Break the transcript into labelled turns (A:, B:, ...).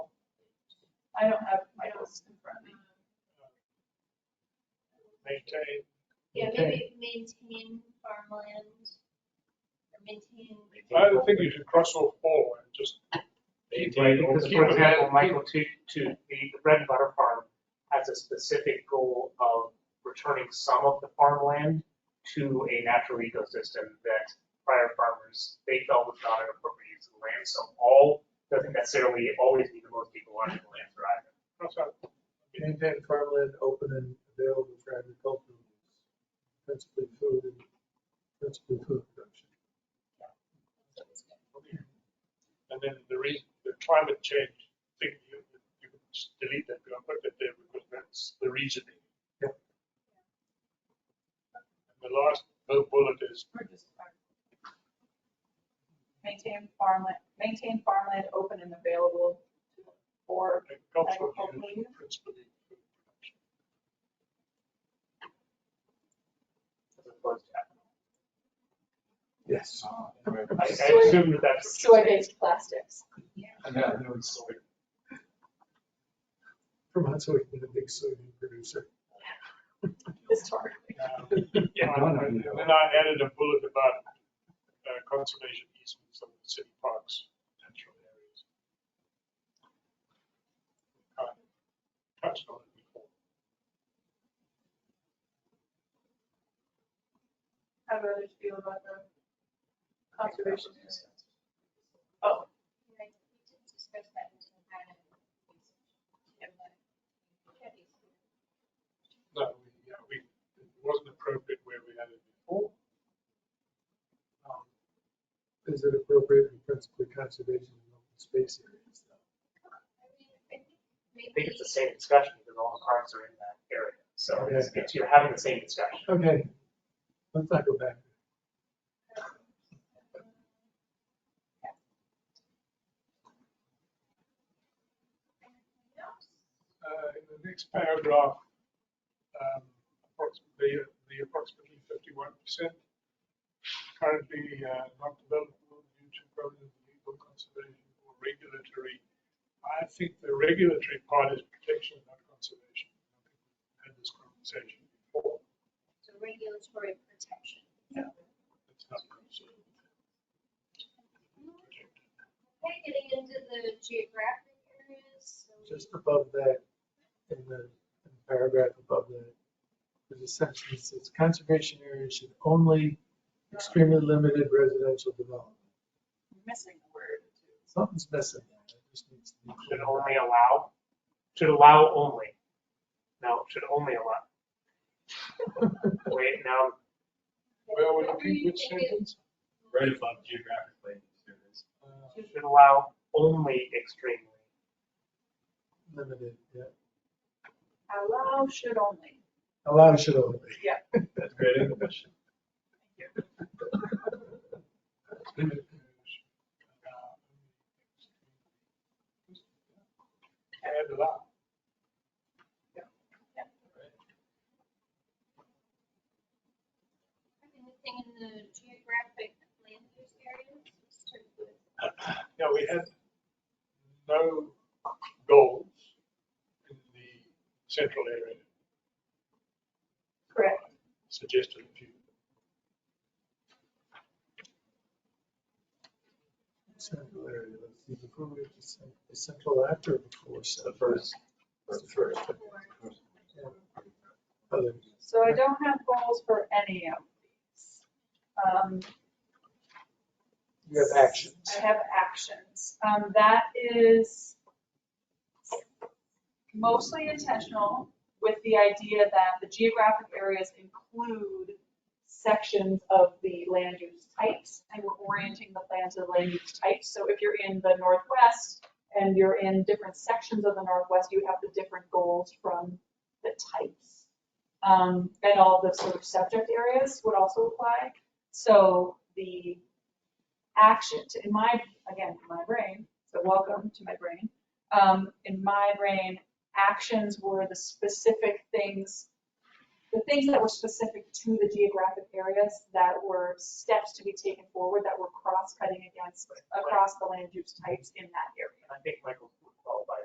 A: I don't have my notes in front of me.
B: maintain,
C: Yeah, maybe maintain farmland or maintain.
B: I don't think you should cross off all and just.
D: Right, because for example, Michael, to, to the the bread and butter farm has a specific goal of returning some of the farmland to a natural ecosystem that prior farmers, they felt was not an appropriate use of the land, so all doesn't necessarily always mean the most ecological answer either.
B: cross out.
E: Maintain farmland open and available for agricultural use, principally food and principally food production.
B: And then the reason, the climate change thing, you, you can just delete that, you don't put that there because that's the reasoning.
E: Yep.
B: And the last bu- bullet is
A: We're just- Maintain farmland, maintain farmland open and available for
B: agricultural
A: Agricultural
B: use
A: use.
B: principally. food production.
D: as opposed to ethanol.
E: Yes.
D: I, I assume that that's. what you're saying.
F: soy-based plastics.
E: Vermont's always been a big soybean producer.
F: Historically.
B: Um, And then I added a bullet about uh, conservation easements of the city parks, natural areas. Kind of Touched on it before.
A: how do others feel about the conservation. area? Oh,
C: Right, we did discuss that in the plan.
B: No, we, yeah, we, it wasn't appropriate where we had it before.
E: Um, Is it appropriate in principally conservation and open space areas?
C: I mean,
D: I
C: I
D: think it's the same discussion because all the parks are in that area, so it's,
E: Yeah.
D: it's, you're having the same discussion.
E: Okay, let's not go back.
B: Uh, in the next paragraph, um, approximately, the approximately fifty-one percent currently uh, not developable due to problems with legal conservation or regulatory. I think the regulatory part is protection, not conservation. I think we've Had this conversation before.
C: It's a regulatory protection.
B: It's not conservation.
C: Okay, getting into the geographic areas. so-
E: Just above that, in the in the paragraph above that, there's a sentence that says conservation areas should only extremely limited residential development.
A: missing the word.
E: Something's missing there. It just needs to be
D: should
E: clear.
D: only allow, should allow only. No, should only allow. Wait, now,
B: Where would it
C: Where
B: be,
C: you
B: which
C: think it-
B: sentence?
G: right above geographic language there is.
E: Uh,
D: should allow only extremely.
E: Limited, yeah.
A: Allow should only.
E: Allow should only.
A: Yeah.
G: That's great English.
B: Add allow.
C: Anything in the geographic land use areas? Let's start with-
B: Yeah, we had no goals in the central area.
A: Correct.
B: Suggested a few.
E: Central area, let's see, before we get to cen- is central after or before
G: The
E: central?
G: first, first, first.
E: Other-
A: So I don't have goals for any of these. Um,
E: You have actions.
A: I have actions. Um, that is mostly intentional with the idea that the geographic areas include sections of the land use types, and we're orienting the plan to the land use types. So if you're in the northwest and you're in different sections of the northwest, you have the different goals from the types. Um, and all the sort of subject areas would also apply. So the action to, in my, again, my brain, so welcome to my brain. Um, in my brain, actions were the specific things, the things that were specific to the geographic areas that were steps to be taken forward that were cross-cutting against, across the land use types in that area.
D: And I think Michael's